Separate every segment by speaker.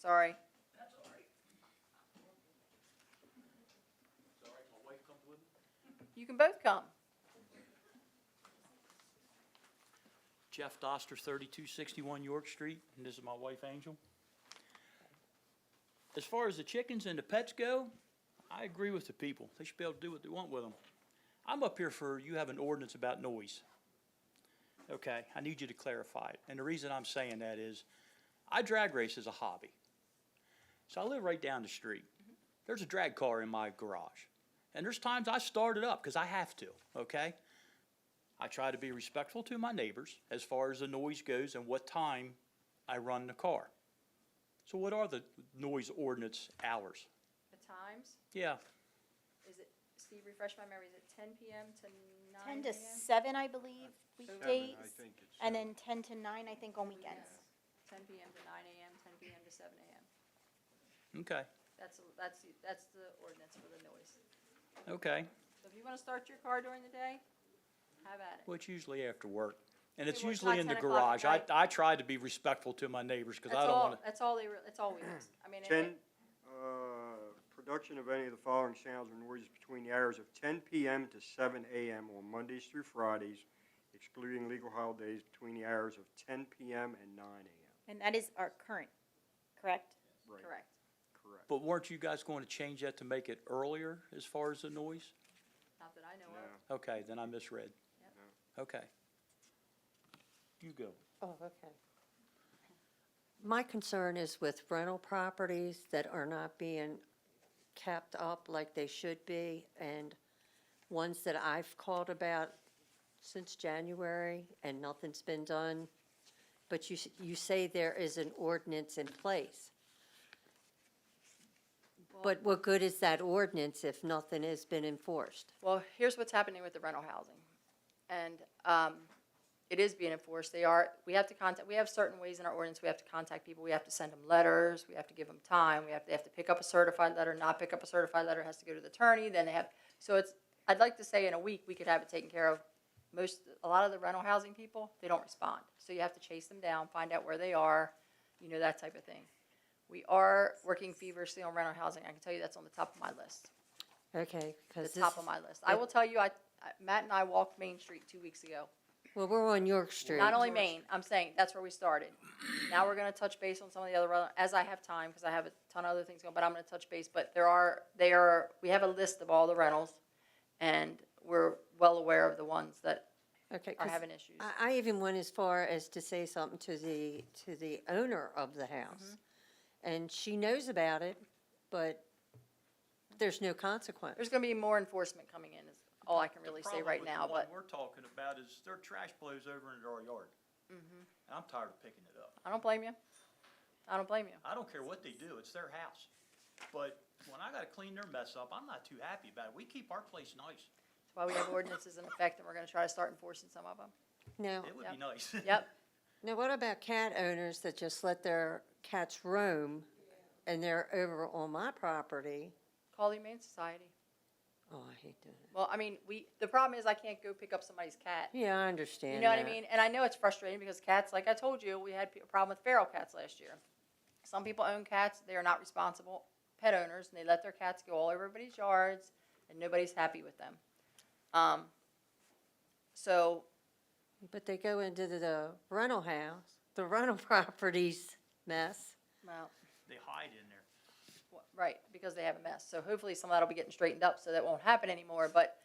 Speaker 1: sorry. You can both come.
Speaker 2: Jeff Doster, 3261 York Street, and this is my wife Angel. As far as the chickens and the pets go, I agree with the people. They should be able to do what they want with them. I'm up here for, you have an ordinance about noise. Okay, I need you to clarify it. And the reason I'm saying that is, I drag race as a hobby. So I live right down the street. There's a drag car in my garage. And there's times I start it up because I have to, okay? I try to be respectful to my neighbors as far as the noise goes and what time I run the car. So what are the noise ordinance hours?
Speaker 1: The times,
Speaker 2: Yeah,
Speaker 1: is it, Steve, refresh my memory, is it ten PM to nine
Speaker 3: Ten
Speaker 1: AM?
Speaker 3: to seven, I believe,
Speaker 4: Seven,
Speaker 3: weekdays,
Speaker 4: I think it's.
Speaker 3: and
Speaker 4: uh,
Speaker 3: then ten to nine, I think, on weekends.
Speaker 1: Ten PM to nine AM, ten PM to seven AM.
Speaker 2: okay,
Speaker 1: That's, that's, that's the ordinance for the noise.
Speaker 2: okay.
Speaker 1: So if you wanna start your car during the day, have at it.
Speaker 2: Well, it's usually after work. And
Speaker 1: We
Speaker 2: it's
Speaker 1: work
Speaker 2: usually
Speaker 1: till
Speaker 2: in the
Speaker 1: 10 o'clock at
Speaker 2: garage. I,
Speaker 1: night.
Speaker 2: I try to be respectful to my neighbors because I
Speaker 1: That's
Speaker 2: don't
Speaker 1: all,
Speaker 2: want to,
Speaker 1: that's all they, re- that's all we ask. I mean, and
Speaker 4: Ten,
Speaker 1: it-
Speaker 4: uh, production of any of the following sounds or noises between the hours of ten PM to seven AM on Mondays through Fridays, excluding legal holidays between the hours of ten PM and nine AM.
Speaker 3: And that is our current, correct?
Speaker 4: Right,
Speaker 1: correct.
Speaker 4: Correct.
Speaker 2: but weren't you guys going to change that to make it earlier as far as the noise?
Speaker 1: Not that I know of.
Speaker 4: No.
Speaker 2: Okay, then I misread. Okay. You go.
Speaker 5: Oh, okay. My concern is with rental properties that are not being kept up like they should be, and ones that I've called about since January, and nothing's been done. But you, s- you say there is an ordinance in place. But what good is that ordinance if nothing has been enforced?
Speaker 1: Well, here's what's happening with the rental housing. And um, it is being enforced. They are, we have to contact, we have certain ways in our ordinance, we have to contact people. We have to send them letters, we have to give them time, we have, they have to pick up a certified letter, not pick up a certified letter, has to go to the attorney, then they have, so it's, I'd like to say in a week, we could have it taken care of. Most, a lot of the rental housing people, they don't respond. So you have to chase them down, find out where they are, you know, that type of thing. We are working feverishly on rental housing. I can tell you that's on the top of my list
Speaker 5: Okay,
Speaker 1: the
Speaker 5: because this,
Speaker 1: top of my list. I will tell you, I, I- Matt and I walked Main Street two weeks ago.
Speaker 5: well, we're on York Street.
Speaker 1: Not only Main, I'm saying, that's where we started. Now we're gonna touch base on some of the other, rel- as I have time, because I have a ton of other things going, but I'm gonna touch base. But there are, they are, we have a list of all the rentals, and we're well aware of the ones that
Speaker 5: Okay,
Speaker 1: are
Speaker 5: 'cause
Speaker 1: having issues.
Speaker 5: I, I even went as far as to say something to the, to the owner of the house. And she knows about it, but there's no consequence.
Speaker 1: There's gonna be more enforcement coming in, is all I can really say
Speaker 2: problem
Speaker 1: right
Speaker 2: with
Speaker 1: now,
Speaker 2: the one
Speaker 1: but
Speaker 2: We're talking about is their trash blows over into our yard.
Speaker 1: Mm-hmm.
Speaker 2: And I'm tired of picking it up.
Speaker 1: I don't blame you. I don't blame you.
Speaker 2: I don't care what they do, it's their house. But when I gotta clean their mess up, I'm not too happy about it. We keep our place nice.
Speaker 1: That's why we have ordinances in effect, and we're gonna try to start enforcing some of them.
Speaker 5: Now,
Speaker 2: It would
Speaker 1: Yep.
Speaker 2: be nice.
Speaker 1: Yep,
Speaker 5: now what about cat owners that just let their cats roam and they're over on my property?
Speaker 1: call the Humane Society.
Speaker 5: Oh, I hate doing it.
Speaker 1: Well, I mean, we, the problem is I can't go pick up somebody's cat.
Speaker 5: Yeah, I understand
Speaker 1: You know what I
Speaker 5: that.
Speaker 1: mean? And I know it's frustrating because cats, like I told you, we had p- a problem with feral cats last year. Some people own cats, they are not responsible pet owners, and they let their cats go all over everybody's yards, and nobody's happy with them. Um, so,
Speaker 5: But they go into the- the rental house, the rental properties mess.
Speaker 1: well,
Speaker 2: They hide in there.
Speaker 1: Wha- Right, because they have a mess. So hopefully some of that'll be getting straightened up, so that won't happen anymore, but,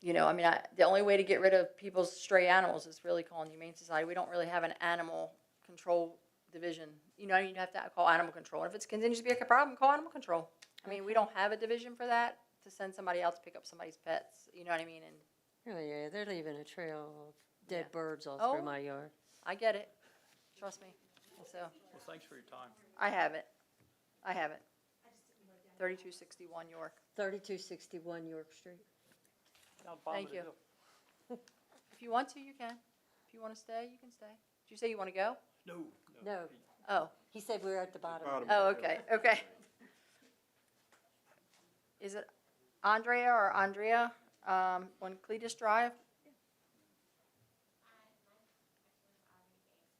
Speaker 1: you know, I mean, I, the only way to get rid of people's stray animals is really calling the Humane Society. We don't really have an animal control division. You know, you'd have to call animal control. And if it continues to be a problem, call animal control. I mean, we don't have a division for that, to send somebody out to pick up somebody's pets, you know what I mean? And
Speaker 5: Oh, yeah, they're leaving a trail of
Speaker 1: Yeah.
Speaker 5: dead birds all
Speaker 1: Oh.
Speaker 5: through my yard.
Speaker 1: I get it, trust me. So,
Speaker 2: Well, thanks for your time.
Speaker 1: I have it, I have it. Thirty-two sixty-one York.
Speaker 5: 3261 York Street.
Speaker 1: Thank you. If you want to, you can. If you want to stay, you can stay. Did you say you want to go?
Speaker 2: No.
Speaker 5: No,
Speaker 1: Oh,
Speaker 5: he said we were at the bottom.
Speaker 4: Bottom
Speaker 1: oh,
Speaker 4: of the
Speaker 1: okay,
Speaker 4: hill.
Speaker 1: okay. Is it Andrea or Andrea, um, on Cletus Drive?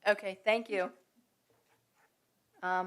Speaker 1: Okay, thank you. Um,